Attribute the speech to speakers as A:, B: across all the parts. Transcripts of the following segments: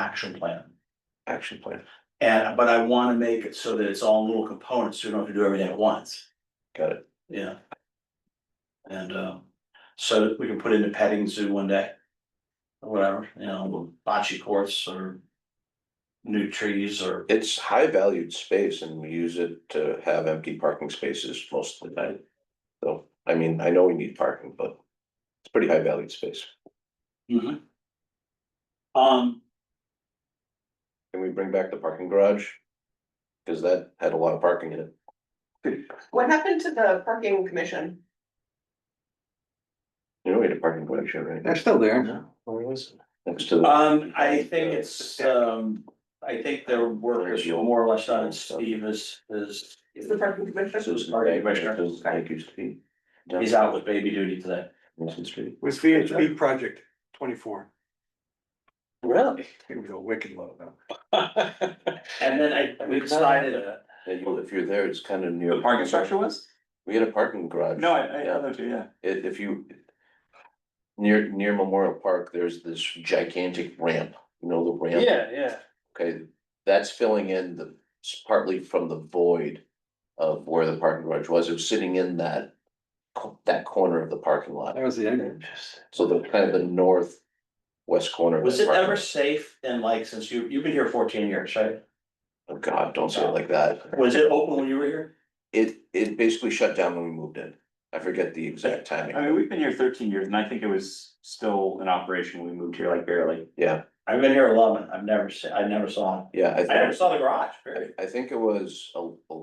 A: action plan.
B: action plan,
A: And, but I wanna make it so that it's all in little components, so you don't have to do everything at once,
B: got it,
A: yeah. And, um, so that we can put in the petting zoo one day. Or whatever, you know, bocce courts or. New trees or,
B: it's high valued space and we use it to have empty parking spaces most of the time. So, I mean, I know we need parking, but it's pretty high valued space,
A: um,
B: can we bring back the parking garage? Cause that had a lot of parking in it,
C: What happened to the parking commission?
B: you know, we had a parking garage here, right
D: They're still there.
B: now. Next to. the-
A: um, I think it's, um, I think their work is more or less done, and Steve is, is.
C: Is the parking commission?
B: Susan
A: Parking
B: Bank,
A: commissioner.
B: Susan Bank used to be.
A: He's out with baby duty today.
B: Wilson Street.
D: Was VHB Project twenty-four.
B: Really?
D: It was a wicked low though.
A: And then I, we decided, uh,
B: if you're there, it's kind of near.
E: The parking structure was?
B: We had a parking garage.
E: No, I, I,
B: Yeah.
E: know too, yeah.
B: If, if you. Near, near Memorial Park, there's this gigantic ramp, you know, the ramp?
E: yeah.
B: Okay, that's filling in the, it's partly from the void of where the parking garage was. It was sitting in that. co- That corner of the parking lot,
D: That was the end.
B: so the kind of the northwest corner. of
A: Was
B: that
A: it
B: parking
A: ever
B: lot.
A: safe and like, since you, you've been here fourteen years, right?
B: Oh, God, don't say it like that.
A: Was it open when you were here?
B: It, it basically shut down when we moved in. I forget the exact
E: I
B: timing.
E: mean, we've been here thirteen years and I think it was still in operation when we moved here like barely.
A: I've been here eleven, I've never seen, I never saw it.
B: Yeah, I
A: I never
B: think,
A: saw the garage, period.
B: I, I think it was a, a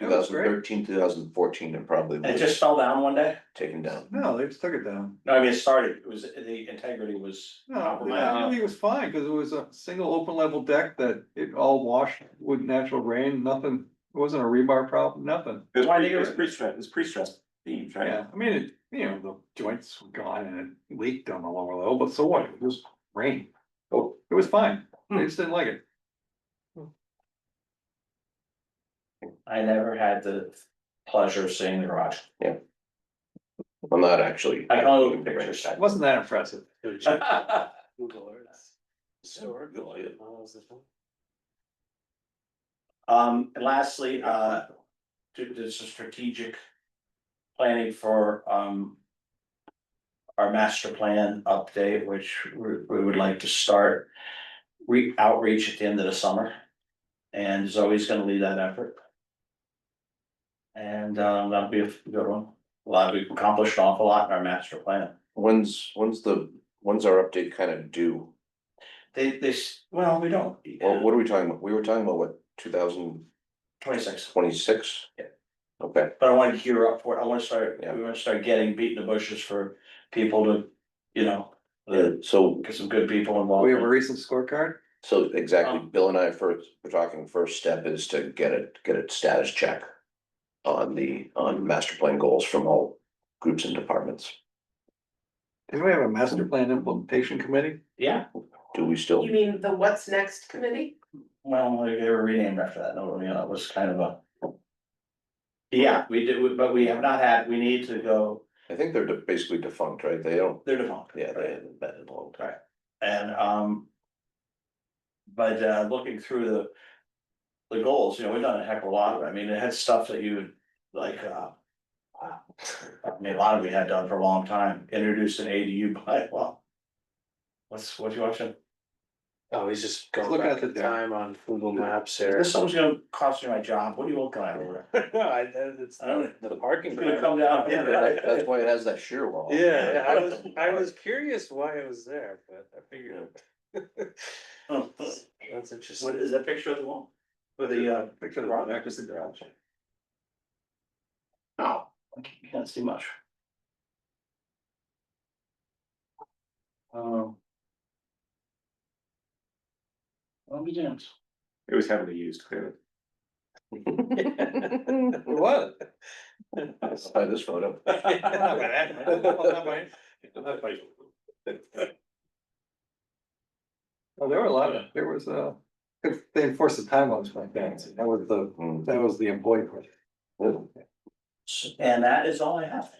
D: That was
B: 2013, 2014,
D: great.
B: and probably
A: and it
B: was
A: just fell down one day.
B: taken down.
D: No, they just took it down.
A: No, I mean, it started, it was, the integrity was
D: No,
A: compromised.
D: it was fine, cause it was a single open level deck that it all washed with natural rain, nothing, it wasn't a rebar problem, nothing.
E: It was,
A: Why
E: pre-
A: did
E: it was
A: it-
E: pre-stress, it was pre-stress themes, right?
D: Yeah, I mean, it, you know, the joints were gone and it leaked on the lower level, but so what? It was rain. Oh, it was fine. They just didn't like it.
A: I never had the pleasure of seeing the garage.
B: I'm not actually.
A: I can only look at pictures.
D: It wasn't that impressive.
A: Um, and lastly, uh, to, this is strategic planning for, um, our master plan update, which we, we would like to start re- outreach at the end of the summer. And Zoe's gonna lead that effort. And, um, that'll be a good one. A lot, we've accomplished an awful lot in our master plan.
B: When's, when's the, when's our update kind of due?
A: They, they, s- well, we don't. uh,
B: Well, what are we talking about? We were talking about what, two thousand
A: Twenty-six.
B: twenty-six?
A: Yeah.
B: Okay,
A: But I wanna gear up for it, I wanna start,
B: Yeah.
A: we wanna start getting beating the bushes for people to, you know.
B: Uh, so,
A: Get some good people
D: We have a
A: involved,
D: recent scorecard.
B: so exactly,
A: Um,
B: Bill and I first, we're talking first step is to get a, get a status check. On the, on master plan goals from all groups and departments.
D: Didn't we have a master plan implementation committee?
A: yeah,
B: Do we still?
C: You mean the what's next committee?
A: well, like, they were renamed after that, no, you know, it was kind of a. Yeah, we do, but we have not had, we need to go,
B: I think they're de- basically defunct, right? They don't,
A: they're defunct.
B: yeah, they haven't been in a long time.
A: And, um. But, uh, looking through the, the goals, you know, we've done a heck of a lot of, it. I mean, it had stuff that you, would like, uh. wow, I mean, a lot of we had done for a long time, introduced an ADU bylaw. What's, what you watching?
F: Oh, he's just
D: Look
F: going back
D: at the
F: in time on Google Maps there.
A: This someone's gonna cost me my job, what are you looking at over there?
F: No, I, that- it's
A: I don't-
F: Oh, the parking.
A: It's gonna
F: lot.
A: come down,
F: Yeah,
A: yeah.
B: That- That's why it has that sheer wall.
F: Yeah, yeah, I was, I was curious why it was there, but I figured.
A: Oh,
F: That's interesting.
A: What is that picture of the wall? With the uh,
D: Picture of the
A: garage?
D: back.
A: No, I can't- you can't see much. Um. Let me dance.
E: It was heavily used, clearly.
D: It was.
B: Let's try this photo.
D: Well, there were a lot of, there was uh 'cause they enforced the timelines back then, so that was the,
B: Hmm.
D: that was the employee part.
A: And that is all I have.